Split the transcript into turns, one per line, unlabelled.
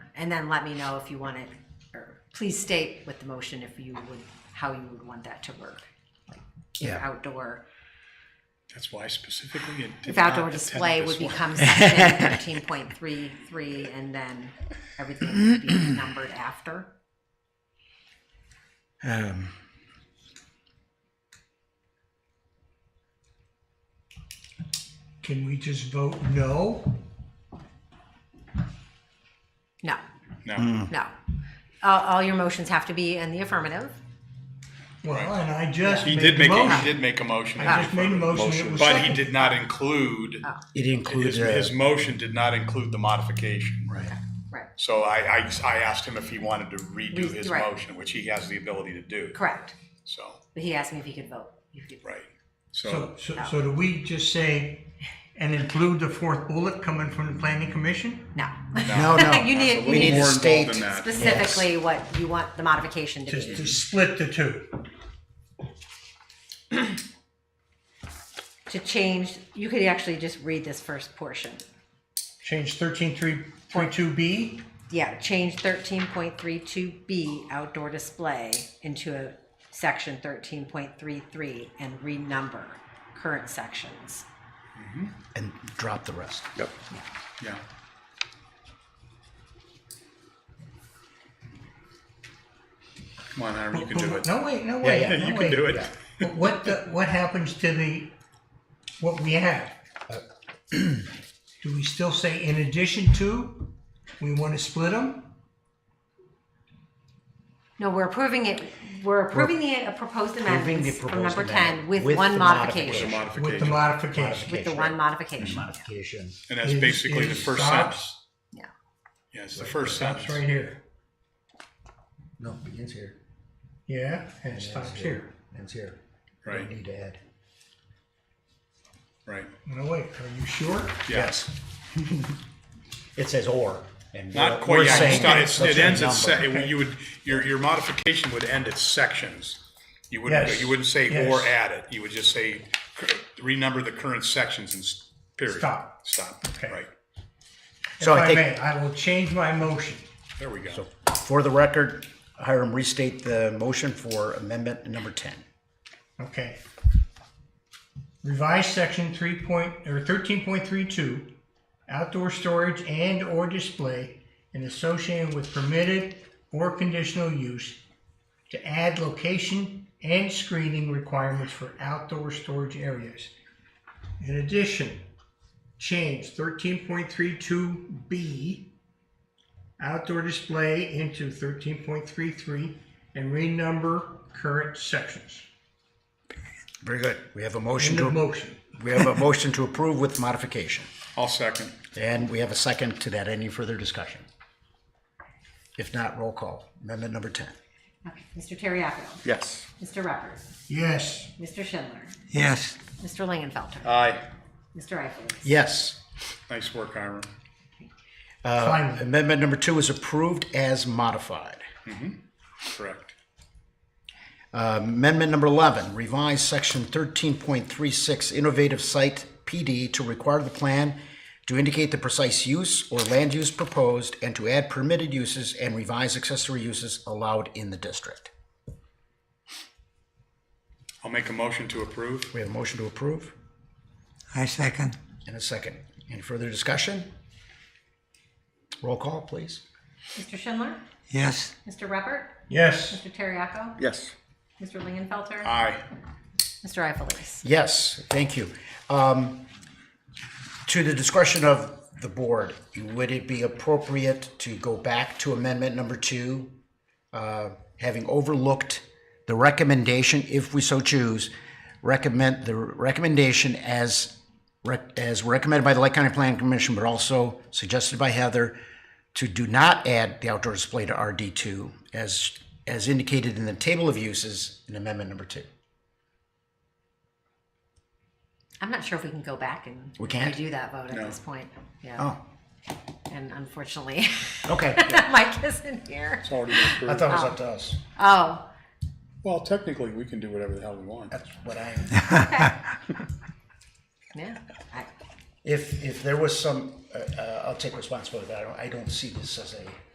And then let me know if you want it, or please state with the motion if you would, how you would want that to work. Like, If
Yeah.
outdoor,
That's why specifically it did
if
not
outdoor
attend
display
this
would
one.
become section thirteen point three three, and then everything would be numbered after.
Um,
Can we just vote no?
No,
No,
no. All, all your motions have to be in the affirmative.
Well, and I just
he
made
did
the
make, a- he
motion.
did make a motion.
I just made a motion, it was
But he
second.
did not include,
Oh.
it
his,
includes
his
a,
motion did not include the modification.
right.
Right,
So I, I, I asked him if he wanted to redo
Re-
his
right.
motion, which he has the ability to do,
correct.
so,
But he asked me if he could vote. If he could-
right.
So,
So,
so, so do we just say, and include the fourth bullet coming from the planning commission?
No.
No, no.
You
That's a
need, you
little
need to
more
need
involved
state
than that.
specifically what you want the modification to
Just
be.
to split the two.
To change, you could actually just read this first portion.
Change thirteen three point two B?
Yeah, change thirteen point three two B outdoor display into a section thirteen point three three and renumber current sections.
And drop the rest.
Yep. Yeah. Come on, Hiram, you can do it.
No, wait, no way,
Yeah, you
no
can do
way.
it.
But What, the- what happens to the, what we have?
Uh,
Do we still say in addition to? We want to split them?
No, we're approving it, we're approving the uh, proposed amendments from
proposed
number ten
amendment
with
with
one
the
With a
modification.
With the
modification,
modification.
With the one modification,
Modification.
and that's
Is-
basically the
is
first
stops-
sentence.
yeah.
Yeah, it's the first
Stops
sentence.
right here.
No, begins here.
Yeah, and it
and
stops
ends
here.
Ends here. We
Right.
don't need to add.
Right,
No, wait, are you sure?
yes.
It says or. and we're-
Not quite,
we're
yeah,
saying
it's not- it's-
let's
it ends
say
at, se-
number.
it- you would, your, your modification would end at sections. You wouldn't,
Yes.
you wouldn't say
Yes.
or add it, you would just say, cur- renumber the current sections and s- period.
Stop.
Stop,
Okay.
right,
If
So I
I
think-
may, I will change my motion.
there we go.
For the record, Hiram, restate the motion for amendment number ten.
Okay. Revise section three point, or thirteen point three two, outdoor storage and or display and associated with permitted or conditional use to add location and screening requirements for outdoor storage areas. In addition, change thirteen point three two B outdoor display into thirteen point three three and renumber current sections.
Very good. We have a motion
End of
to,
motion.
we have a motion to approve with modification.
I'll second.
And we have a second to that. Any further discussion? If not, roll call. Amendment number 10.
Okay, Mr. Terriaco,
Yes.
Mr. Ruppert,
Yes.
Mr. Schindler,
Yes.
Mr. Langenfelter,
Aye.
Mr. Eiffelise.
Yes.
Nice work, Hiram.
Finally,
Amendment number two is approved as modified.
Correct.
Um, Amendment number 11, revise section 13.36 innovative site PD to require the plan to indicate the precise use or land use proposed and to add permitted uses and revise accessory uses allowed in the district.
I'll make a motion to approve.
We have a motion to approve
I second.
and a second. Any further discussion? Roll call, please.
Mr. Schindler,
Yes.
Mr. Ruppert,
yes,
Mr. Terriaco,
Yes. Uh,
Mr. Langenfelter,
Aye.
Mr. Eiffelise.
Yes, thank you. Um, To the discretion of the board, would it be appropriate to go back to amendment number two? uh, Having overlooked the recommendation, if we so choose, recommend, the recommendation as, rec- as recommended by the Lake County Planning Commission, but also suggested by Heather, to do not add the outdoor display to RD two as, as indicated in the table of uses in amendment number two.
I'm not sure if we can go back and
We can't?
redo that vote at
No.
this point. Yeah,
Oh,
and unfortunately,
okay.
Mike isn't here.
It's already been
I
approved.
thought it was up to us.
Oh,
Well, technically, we can do whatever the hell we want.
That's what I,
yeah. I-
if, if there was some, uh, uh, I'll take responsibility, but I don't, I don't see this as a